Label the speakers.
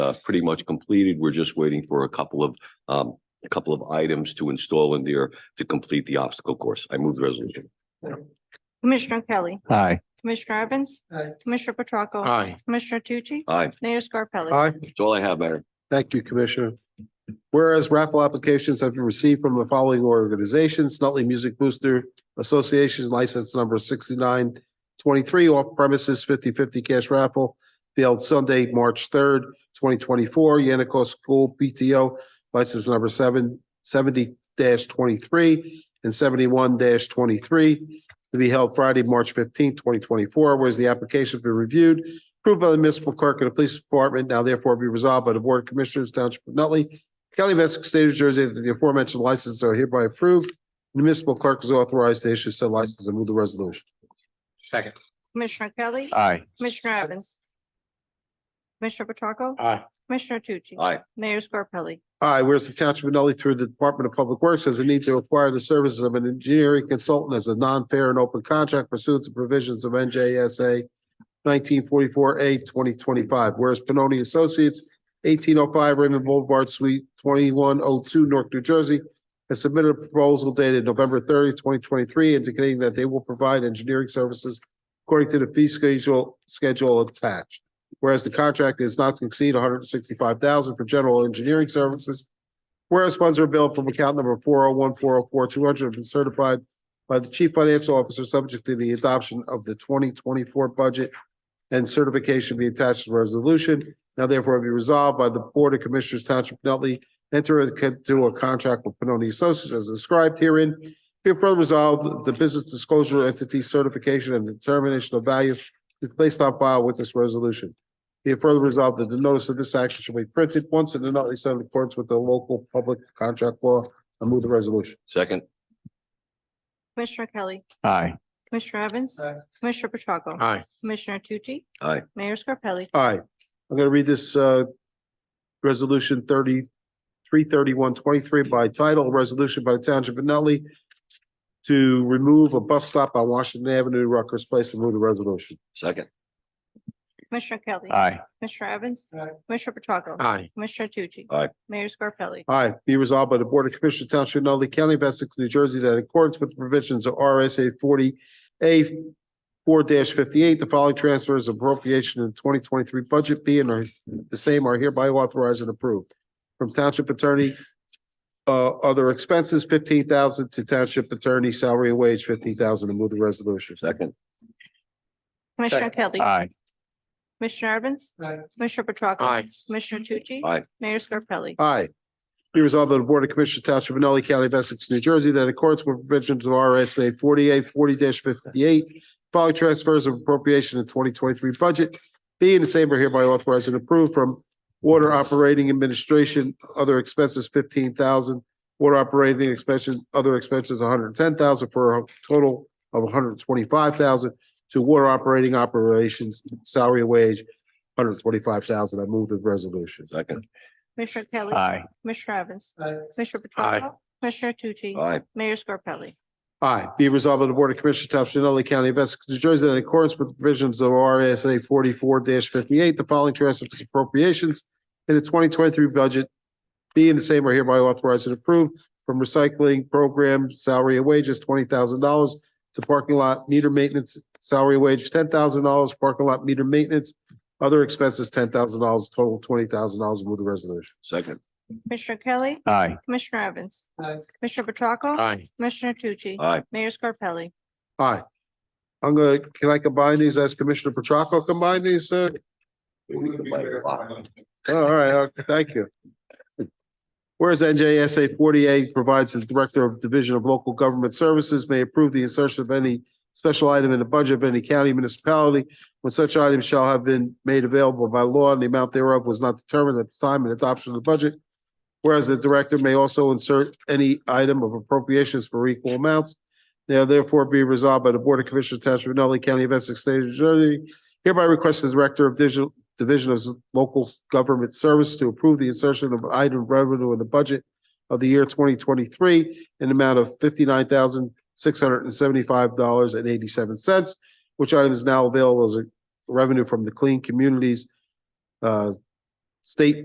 Speaker 1: uh, pretty much completed. We're just waiting for a couple of, um, a couple of items to install in there to complete the obstacle course. I move the resolution.
Speaker 2: Commissioner Kelly.
Speaker 3: Aye.
Speaker 2: Commissioner Evans.
Speaker 4: Aye.
Speaker 2: Commissioner Petracca.
Speaker 5: Aye.
Speaker 2: Commissioner Tucci.
Speaker 1: Aye,
Speaker 2: Mayor Scarpelli.
Speaker 4: Aye.
Speaker 1: that's all I have, Mayor.
Speaker 4: Thank you, Commissioner. Whereas raffle applications have been received from the following organizations, Nutley Music Booster Association license number sixty-nine twenty-three, off premises 50-50 cash raffle, failed Sunday, March third, twenty twenty-four, Yannicos School PTO license number seven seventy twenty-three and seventy-one twenty-three to be held Friday, March fifteenth, twenty twenty-four, whereas the application has been reviewed approved by the municipal clerk and the police department, now therefore be resolved by the Board of Commissioners Township of Nutley, County of Essex, State of New Jersey, that the aforementioned licenses are hereby approved. The municipal clerk is authorized to issue said license and move the resolution.
Speaker 5: Second.
Speaker 2: Commissioner Kelly.
Speaker 3: Aye.
Speaker 2: Commissioner Evans. Commissioner Petracca.
Speaker 5: Aye.
Speaker 2: Commissioner Tucci.
Speaker 1: Aye,
Speaker 2: Mayor Scarpelli.
Speaker 4: All right, whereas the Township of Nutley through the Department of Public Works has a need to acquire the services of an engineering consultant as a non-fair and open contract pursuant to provisions of NJSA nineteen forty-four A twenty twenty-five, whereas Pinoni Associates, eighteen oh five Raymond Boulevard, Suite twenty-one oh two, Newark, New Jersey, has submitted a proposal dated November 30, 2023, indicating that they will provide engineering services according to the fee schedule, schedule attached. Whereas the contract is not to exceed one hundred and sixty-five thousand for general engineering services. Whereas funds are billed from account number four oh one four oh four two hundred have been certified by the chief financial officer, subject to the adoption of the twenty twenty-four budget and certification be attached to the resolution. Now therefore be resolved by the Board of Commissioners Township of Nutley, enter into a contract with Pinoni Associates as described herein. Be further resolved, the business disclosure entity certification and determination of value be placed on file with this resolution. Be it further resolved that the notice of this action shall be printed once and then not least in accordance with the local public contract law. I move the resolution.
Speaker 1: second,
Speaker 2: Commissioner Kelly.
Speaker 3: Aye.
Speaker 2: Commissioner Evans.
Speaker 4: Aye.
Speaker 2: Commissioner Petracca.
Speaker 5: Aye.
Speaker 2: Commissioner Tucci.
Speaker 1: Aye.
Speaker 2: Mayor Scarpelli.
Speaker 4: Aye. I'm going to read this uh resolution thirty three thirty one twenty three by title, a resolution by the Township of Nutley to remove a bus stop on Washington Avenue, Rutgers Place. I move the resolution.
Speaker 1: second,
Speaker 2: Commissioner Kelly.
Speaker 3: Aye.
Speaker 2: Commissioner Evans.
Speaker 4: Aye.
Speaker 2: Commissioner Petracca.
Speaker 5: Aye.
Speaker 2: Commissioner Tucci.
Speaker 1: Aye.
Speaker 2: Mayor Scarpelli.
Speaker 4: Aye, be resolved by the Board of Commissioners Township of Nutley County of Essex, New Jersey, that in accordance with the provisions of RSA forty A four fifty-eight, the following transfers of appropriation in the twenty twenty-three budget be and are the same are hereby authorized and approved. From Township Attorney, uh, other expenses fifteen thousand to Township Attorney salary and wage fifteen thousand. To move the resolution.
Speaker 1: second,
Speaker 2: Commissioner Kelly.
Speaker 3: Aye.
Speaker 2: Commissioner Evans.
Speaker 4: Aye.
Speaker 2: Commissioner Petracca.
Speaker 5: Aye.
Speaker 2: Commissioner Tucci.
Speaker 1: Aye.
Speaker 2: Mayor Scarpelli.
Speaker 4: Aye. Be resolved by the Board of Commissioners Township of Nutley County of Essex, New Jersey, that in accordance with provisions of RSA forty-eight, forty fifty-eight, following transfers of appropriation in twenty twenty-three budget, be in the same are hereby authorized and approved from Water Operating Administration, other expenses fifteen thousand, Water Operating expenses, other expenses hundred and ten thousand for a total of hundred and twenty-five thousand to Water Operating Operations Salary and Wage, hundred and twenty-five thousand. I move the resolution.
Speaker 1: second.
Speaker 2: Commissioner Kelly.
Speaker 3: Aye.
Speaker 2: Commissioner Evans.
Speaker 4: Aye.
Speaker 2: Commissioner Petracca. Commissioner Tucci.
Speaker 1: Aye,
Speaker 2: Mayor Scarpelli.
Speaker 4: Aye. Be resolved by the Board of Commissioners Township of Nutley County of Essex, New Jersey, that in accordance with the provisions of RSA forty-four fifty-eight, the following transfers and appropriations in the twenty twenty-three budget being the same are hereby authorized and approved from recycling program salary and wages twenty thousand dollars to parking lot meter maintenance salary and wage ten thousand dollars, parking lot meter maintenance, other expenses ten thousand dollars, total twenty thousand dollars. Move the resolution.
Speaker 1: second,
Speaker 2: Commissioner Kelly.
Speaker 3: Aye.
Speaker 2: Commissioner Evans.
Speaker 4: Aye.
Speaker 2: Commissioner Petracca.
Speaker 5: Aye.
Speaker 2: Commissioner Tucci.
Speaker 1: aye,
Speaker 2: Mayor Scarpelli.
Speaker 4: Aye. I'm gonna, can I combine these? As Commissioner Petracca, combine these, uh, Oh, All right, okay, thank you. Whereas NJSA forty-eight provides the Director of Division of Local Government Services may approve the insertion of any special item in the budget of any county municipality when such item shall have been made available by law and the amount thereof was not determined at the time of adoption of the budget. Whereas the Director may also insert any item of appropriations for equal amounts. Now therefore be resolved by the Board of Commissioners Township of Nutley County of Essex State of New Jersey hereby requests the Director of Digital Division of Local Government Service to approve the insertion of item revenue in the budget of the year twenty twenty-three in the amount of fifty-nine thousand, six hundred and seventy-five dollars and eighty-seven cents, which item is now available as a revenue from the Clean Communities uh, state